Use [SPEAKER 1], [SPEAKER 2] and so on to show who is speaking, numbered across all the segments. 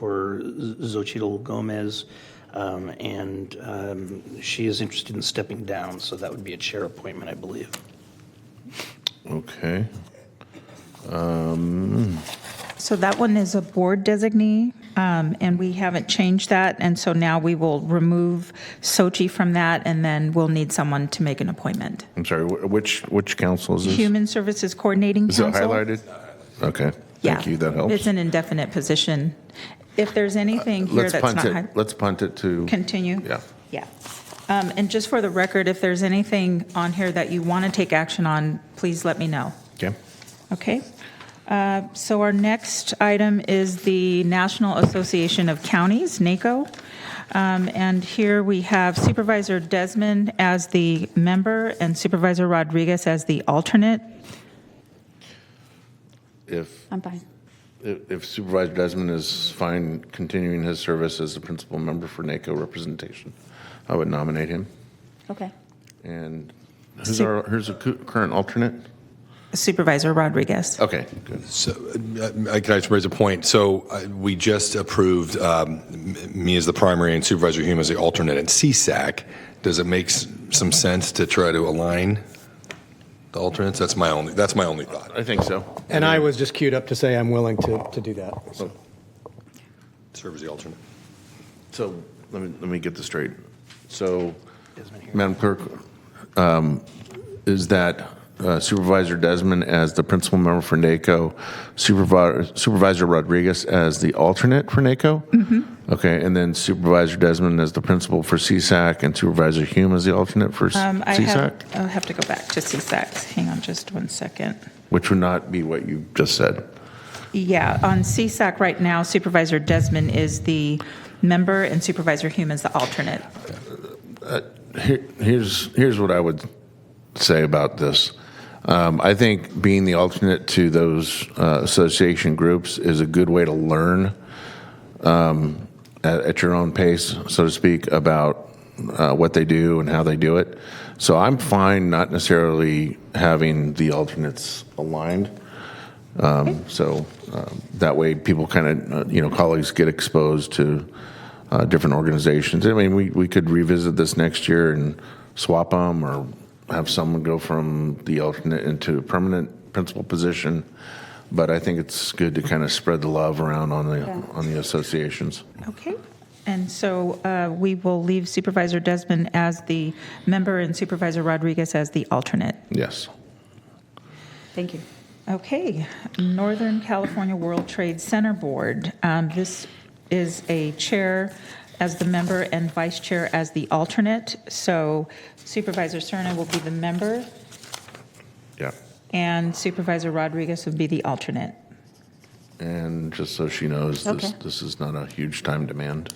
[SPEAKER 1] for Z- Xochitl Gomez, um, and um, she is interested in stepping down, so that would be a chair appointment, I believe.
[SPEAKER 2] Okay.
[SPEAKER 3] So that one is a board designee, um, and we haven't changed that, and so now we will remove Sochi from that, and then we'll need someone to make an appointment.
[SPEAKER 2] I'm sorry, wh- which, which council is this?
[SPEAKER 3] Human Services Coordinating
[SPEAKER 2] Is it
[SPEAKER 3] Council?
[SPEAKER 2] highlighted? Okay,
[SPEAKER 3] Yeah.
[SPEAKER 2] thank you, that
[SPEAKER 3] It's
[SPEAKER 2] helps. Uh,
[SPEAKER 3] an indefinite position. If there's anything here
[SPEAKER 2] Let's
[SPEAKER 3] that's
[SPEAKER 2] punt
[SPEAKER 3] not.
[SPEAKER 2] it,
[SPEAKER 3] hi-
[SPEAKER 2] let's punt it to,
[SPEAKER 3] Continue?
[SPEAKER 2] yeah.
[SPEAKER 3] Yeah. Um, And just for the record, if there's anything on here that you want to take action on, please let me know.
[SPEAKER 2] Okay,
[SPEAKER 3] Okay. Uh, So our next item is the National Association of Counties, NACO. Um, And here we have Supervisor Desmond as the member and Supervisor Rodriguez as the alternate.
[SPEAKER 2] if,
[SPEAKER 4] I'm fine.
[SPEAKER 2] if if Supervisor Desmond is fine continuing his service as the principal member for NACO representation, I would nominate him.
[SPEAKER 4] Okay.
[SPEAKER 2] And who's our, who's the cu- current alternate?
[SPEAKER 3] Supervisor Rodriguez.
[SPEAKER 2] Okay, good.
[SPEAKER 5] So, uh, I can I just raise a point? So uh, we just approved um, m- me as the primary and Supervisor Hume as the alternate in CSAC. Does it make s- some sense to try to align the alternates? That's my only, that's my only thought.
[SPEAKER 2] I think so.
[SPEAKER 6] And I was just queued up to say I'm willing to, to do that. so.
[SPEAKER 5] Serve as the alternate.
[SPEAKER 2] So let me, let me get this straight. So,
[SPEAKER 1] Desmond here.
[SPEAKER 2] Madam Clerk, um, is that uh, Supervisor Desmond as the principal member for NACO, Supervi- Supervisor Rodriguez as the alternate for NACO? Mm-hmm. Okay, and then Supervisor Desmond as the principal for CSAC and Supervisor Hume as the alternate for s-
[SPEAKER 3] Um, I have,
[SPEAKER 2] CSAC?
[SPEAKER 3] I'll have to go back to CSAC. Hang on just one second.
[SPEAKER 2] Which would not be what you just said.
[SPEAKER 3] Yeah, on CSAC right now Supervisor Desmond is the member and Supervisor Hume is the alternate.
[SPEAKER 2] Here- here's here's what I would say about this. Um, I think being the alternate to those uh, association groups is a good way to learn um, at, at your own pace, so to speak, about uh, what they do and how they do it. So I'm fine not necessarily having the alternates aligned. Um, So um, that way, people kind of, uh, you know, colleagues get exposed to uh, different organizations. I mean, we, we could revisit this next year and swap them or have someone go from the alternate into a permanent principal position. But I think it's good to kind of spread the love around on the,
[SPEAKER 4] Yeah.
[SPEAKER 2] on the associations.
[SPEAKER 3] Okay, and so uh, we will leave Supervisor Desmond as the member and Supervisor Rodriguez as the alternate.
[SPEAKER 2] Yes.
[SPEAKER 4] Thank you.
[SPEAKER 3] Okay, Northern California World Trade Center Board. Um, This is a chair as the member and vice chair as the alternate. So Supervisor Cerna will be the member
[SPEAKER 2] Yeah.
[SPEAKER 3] and Supervisor Rodriguez will be the alternate.
[SPEAKER 2] And just so she knows, this,
[SPEAKER 4] Okay.
[SPEAKER 2] this is not a huge time demand.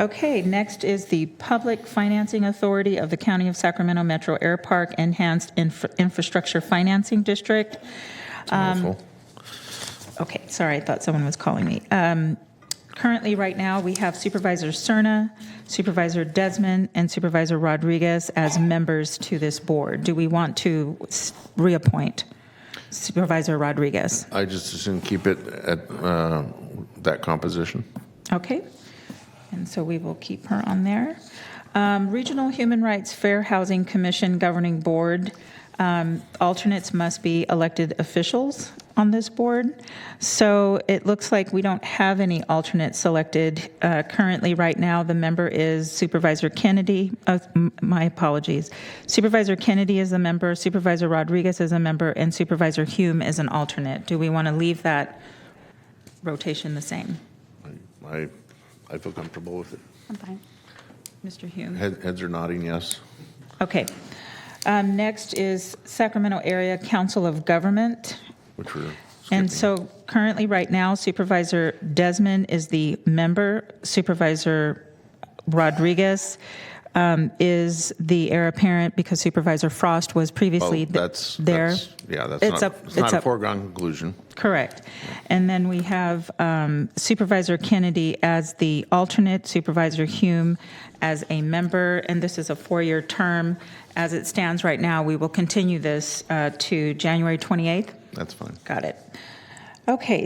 [SPEAKER 3] Okay, next is the Public Financing Authority of the County of Sacramento Metro Air Park Enhanced Infra- Infrastructure Financing District.
[SPEAKER 2] It's a
[SPEAKER 3] Um,
[SPEAKER 2] mouthful.
[SPEAKER 3] Okay, sorry, I thought someone was calling me. Um, Currently, right now, we have Supervisor Cerna, Supervisor Desmond, and Supervisor Rodriguez as members to this board. Do we want to s- reappoint Supervisor Rodriguez?
[SPEAKER 2] I just assume keep it at uh, that composition.
[SPEAKER 3] Okay, and so we will keep her on there. Um, Regional Human Rights Fair Housing Commission Governing Board, um, alternates must be elected officials on this board. So it looks like we don't have any alternates selected. Uh, Currently, right now, the member is Supervisor Kennedy, uh, m- my apologies. Supervisor Kennedy is a member, Supervisor Rodriguez is a member, and Supervisor Hume is an alternate. Do we want to leave that rotation the same?
[SPEAKER 2] I, I feel comfortable with it.
[SPEAKER 4] I'm fine.
[SPEAKER 3] Mr. Hume?
[SPEAKER 2] Head- Heads are nodding yes.
[SPEAKER 3] Okay. Um, Next is Sacramento Area Council of Government.
[SPEAKER 2] Which we're
[SPEAKER 3] And
[SPEAKER 2] skipping.
[SPEAKER 3] so currently, right now Supervisor Desmond is the member, Supervisor Rodriguez um, is the heir apparent because Supervisor Frost was
[SPEAKER 2] Oh,
[SPEAKER 3] previously th-
[SPEAKER 2] that's
[SPEAKER 3] there.
[SPEAKER 2] that's- Yeah, that's
[SPEAKER 3] It's
[SPEAKER 2] not,
[SPEAKER 3] up-
[SPEAKER 2] it's not
[SPEAKER 3] it's
[SPEAKER 2] a
[SPEAKER 3] up.
[SPEAKER 2] foregone conclusion.
[SPEAKER 3] Correct. And then we have um, Supervisor Kennedy as the alternate, Supervisor Hume as a member, and this is a four-year term. As it stands right now, we will continue this uh, to January 28th.
[SPEAKER 2] That's fine.
[SPEAKER 3] Got it. Okay,